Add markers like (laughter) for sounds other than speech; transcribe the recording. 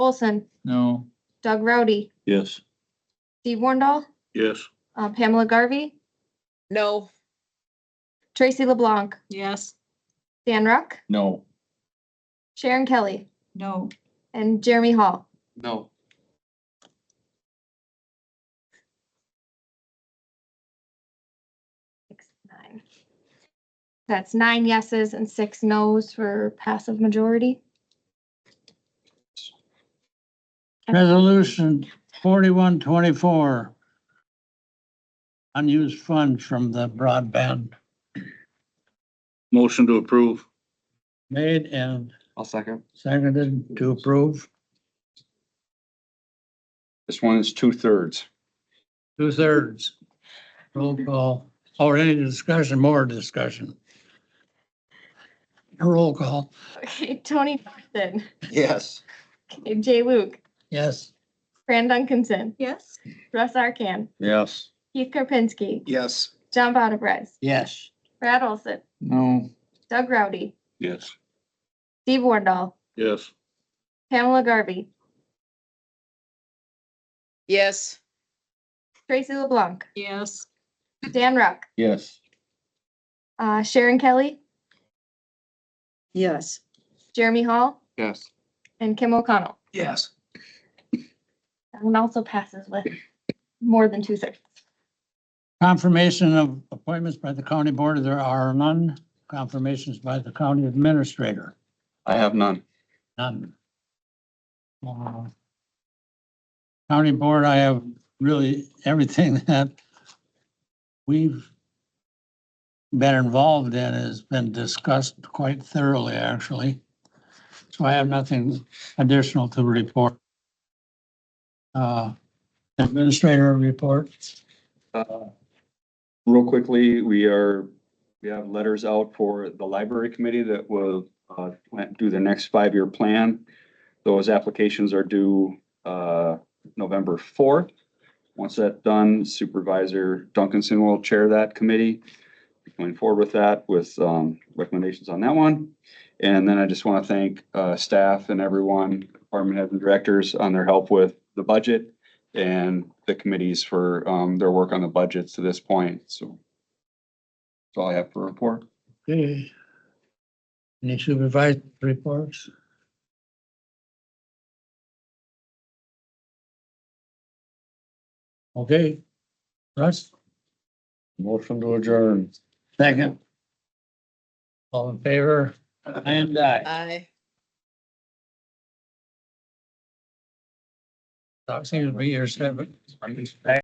Olson, No. Doug Rowdy, Yes. Steve Wornall, Yes. uh, Pamela Garvey, No. Tracy LeBlanc, Yes. Dan Ruck, No. Sharon Kelly, No. and Jeremy Hall. No. Six, nine. That's nine yeses and six nos for passive majority. Resolution forty-one twenty-four. Unused funds from the broadband Motion to approve. made and I'll second. seconded to approve. This one is two thirds. Two thirds. Roll call, or any discussion, more discussion. Roll call, Okay, (laughs) Tony Thorson, Yes. okay, Jay Luke, yes. Fran Duncanson, Yes. Russ Arkan, Yes. Keith Karpinski, Yes. John Bonaprise, Yes. Brad Olson, No. Doug Rowdy, Yes. Steve Wornall, Yes. Pamela Garvey, Yes. Tracy LeBlanc, Yes. Dan Ruck, Yes. uh, Sharon Kelly, Yes. Jeremy Hall, Yes. and Kim O'Connell. Yes. That one also passes with more than two thirds. Confirmation of appointments by the county board, there are none. Confirmations by the county administrator, I have none. none. Uh, County board, I have really everything (laughs) that we've been involved in has been discussed quite thoroughly, actually. So I have nothing additional to report. Uh, Administrator report. Uh, Real quickly, we are, we have letters out for the library committee that will uh, plan- do their next five-year plan. Those applications are due uh, November fourth. Once that's done, Supervisor Duncanson will chair that committee. Be Going forward with that, with um, recommendations on that one. And then I just want to thank uh, staff and everyone, department heads and directors on their help with the budget and the committees for um their work on the budgets to this point, so. That's all I have for report. Okay. Any supervised reports? Okay. Russ, Motion to adjourn. second. All in favor? And I. Aye. Talk seems to be your seven.